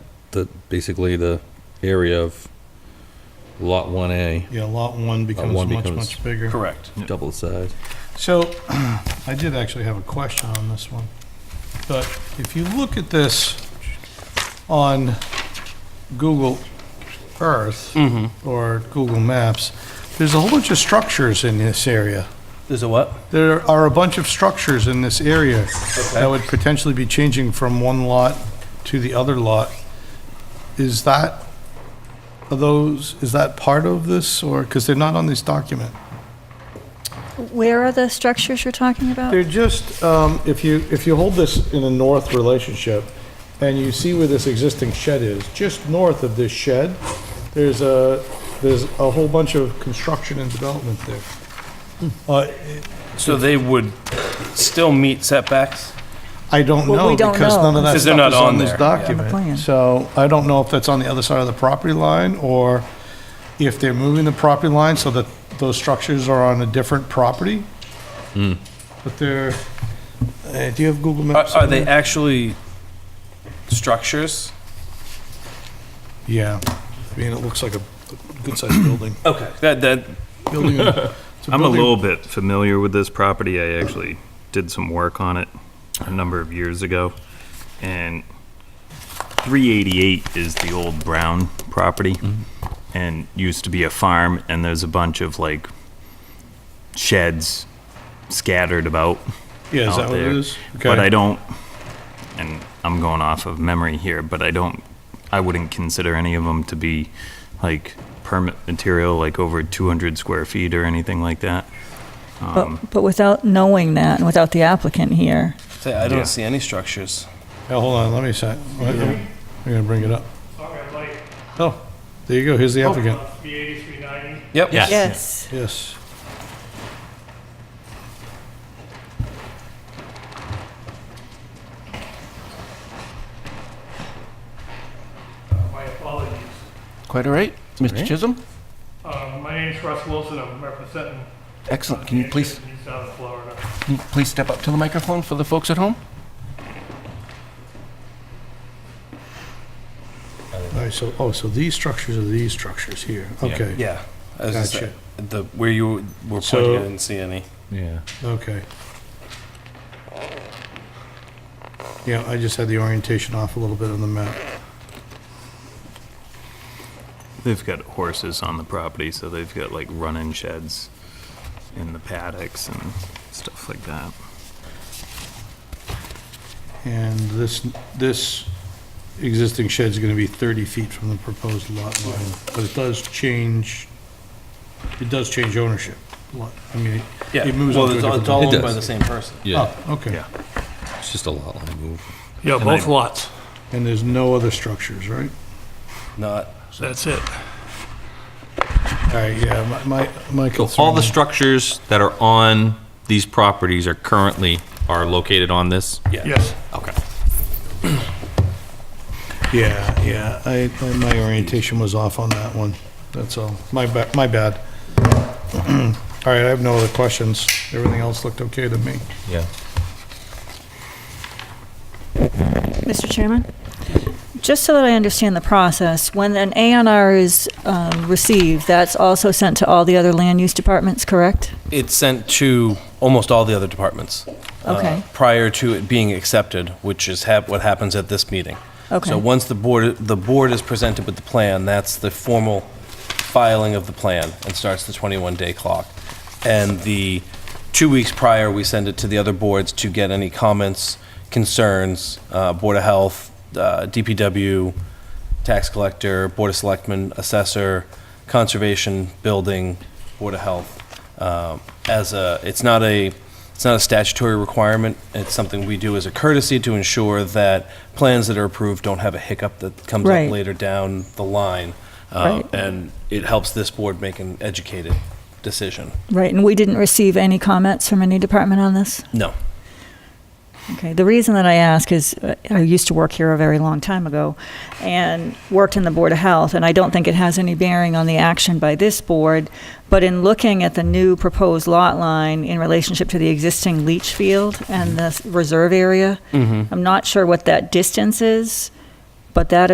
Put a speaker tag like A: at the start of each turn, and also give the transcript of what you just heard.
A: the basically the area of Lot One A,
B: Yeah, Lot 1 becomes
A: one
B: much,
A: becomes-
B: much bigger.
C: Correct.
A: double the size.
B: So I did actually have a question on this one. But if you look at this on Google Earth
C: Mm-hmm.
B: or Google Maps, there's a whole bunch of structures in this area.
C: There's a what?
B: There are a bunch of structures in this area that would potentially be changing from one lot to the other lot. Is that, are those, is that part of this, or, because they're not on this document?
D: Where are the structures you're talking about?
B: They're just, um, if you, if you hold this in a north relationship, and you see where this existing shed is, just north of this shed, there's a, there's a whole bunch of construction and development there. Uh,
C: So they would still meet setbacks?
B: I don't
D: Well, we
B: know,
D: don't
B: because
D: know.
B: none of that
C: Because they're
B: stuff
C: not
B: is on
C: on
B: this
C: there, yeah. On the
D: plan.
B: document. So I don't know if that's on the other side of the property line, or if they're moving the property line so that those structures are on a different property.
C: Hmm.
B: But they're, eh, do you have Google
C: Are,
B: Maps?
C: are they actually structures?
B: Yeah, I mean, it looks like a good-sized building.
C: Okay. That, that,
B: Building. it's
E: I'm a
B: building-
E: little bit familiar with this property. I actually did some work on it a number of years ago. And 388 is the old Brown property
B: Mm-hmm.
E: and used to be a farm and there's a bunch of like sheds scattered about.
B: Yeah, is
E: out
B: that what it
E: there.
B: is?
E: But
B: Okay.
E: I don't, and I'm going off of memory here, but I don't, I wouldn't consider any of them to be like permit material, like over 200 square feet or anything like that.
D: But, but without knowing that, and without the applicant here,
C: I
E: Yeah.
C: don't see any structures.
B: Yeah, hold on, let me sec, I'm gonna bring it up. Oh, there you go, here's the applicant,
F: The 8390,
C: Yep.
A: Yes.
G: Yes.
B: yes.
F: my apologies.
H: Quite all right, Mr. Chisholm?
F: Um, My name's Russ Wilson, I'm representing.
H: Excellent. Can you please,
F: In South Florida.
H: can you please step up to the microphone for the folks at home?
B: All right, so, oh, so these structures are these structures here, okay,
C: Yeah. I was just-
B: Gotcha.
C: The, where you were
B: So-
C: pointing, I didn't see any.
A: Yeah.
B: okay. Yeah, I just had the orientation off a little bit on the map.
E: They've got horses on the property, so they've got like running sheds in the paddocks and stuff like that.
B: And this, this existing shed's gonna be 30 feet from the proposed lot line, but it does change, it does change ownership. Lot- I mean,
C: Yeah.
B: it moves
C: well,
B: on to a
C: it's all-
B: different...
C: it's all
A: It
C: owned by
A: does.
C: the same person.
A: Yeah,
B: Oh, okay.
E: Yeah.
A: it's just a lot line move.
F: Yeah,
E: And both I-
F: lots,
B: And there's no other structures, right?
C: Not.
F: that's it.
B: All right, yeah, my- my, my
A: So
B: concern...
A: all the structures that are on these properties are currently, are located on this?
F: Yes.
A: Okay.
B: Yeah, yeah, I, I- my orientation was off on that one, that's all. My ba, my bad. All right, I have no other questions. Everything else looked okay to me.
A: Yeah.
D: Mr. Chairman? Just so that I understand the process, when an A and R is um, received, that's also sent to all the other land use departments, correct?
C: It's sent to almost all the other departments. uh,
D: Okay.
C: Prior to it being accepted, which is hap, what happens at this meeting.
D: Okay.
C: So once the board, the board is presented with the plan, that's the formal filing of the plan and starts the 21-day clock. And the two weeks prior, we send it to the other boards to get any comments, concerns, uh, Board of Health, uh, DPW, Tax Collector, Board of Selectmen, Assessor, Conservation, Building, Board of Health. Um, As a, it's not a, it's not a statutory requirement. It's something we do as a courtesy to ensure that plans that are approved don't have a hiccup that comes
D: Right.
C: up later down the line. Um,
D: Right.
C: And it helps this board make an educated decision.
D: Right, and we didn't receive any comments from any department on this?
C: No.
D: Okay, the reason that I ask is uh, I used to work here a very long time ago and worked in the Board of Health, and I don't think it has any bearing on the action by this board, but in looking at the new proposed lot line in relationship to the existing leach field and the s- reserve area, I'm not sure what that distance is, but that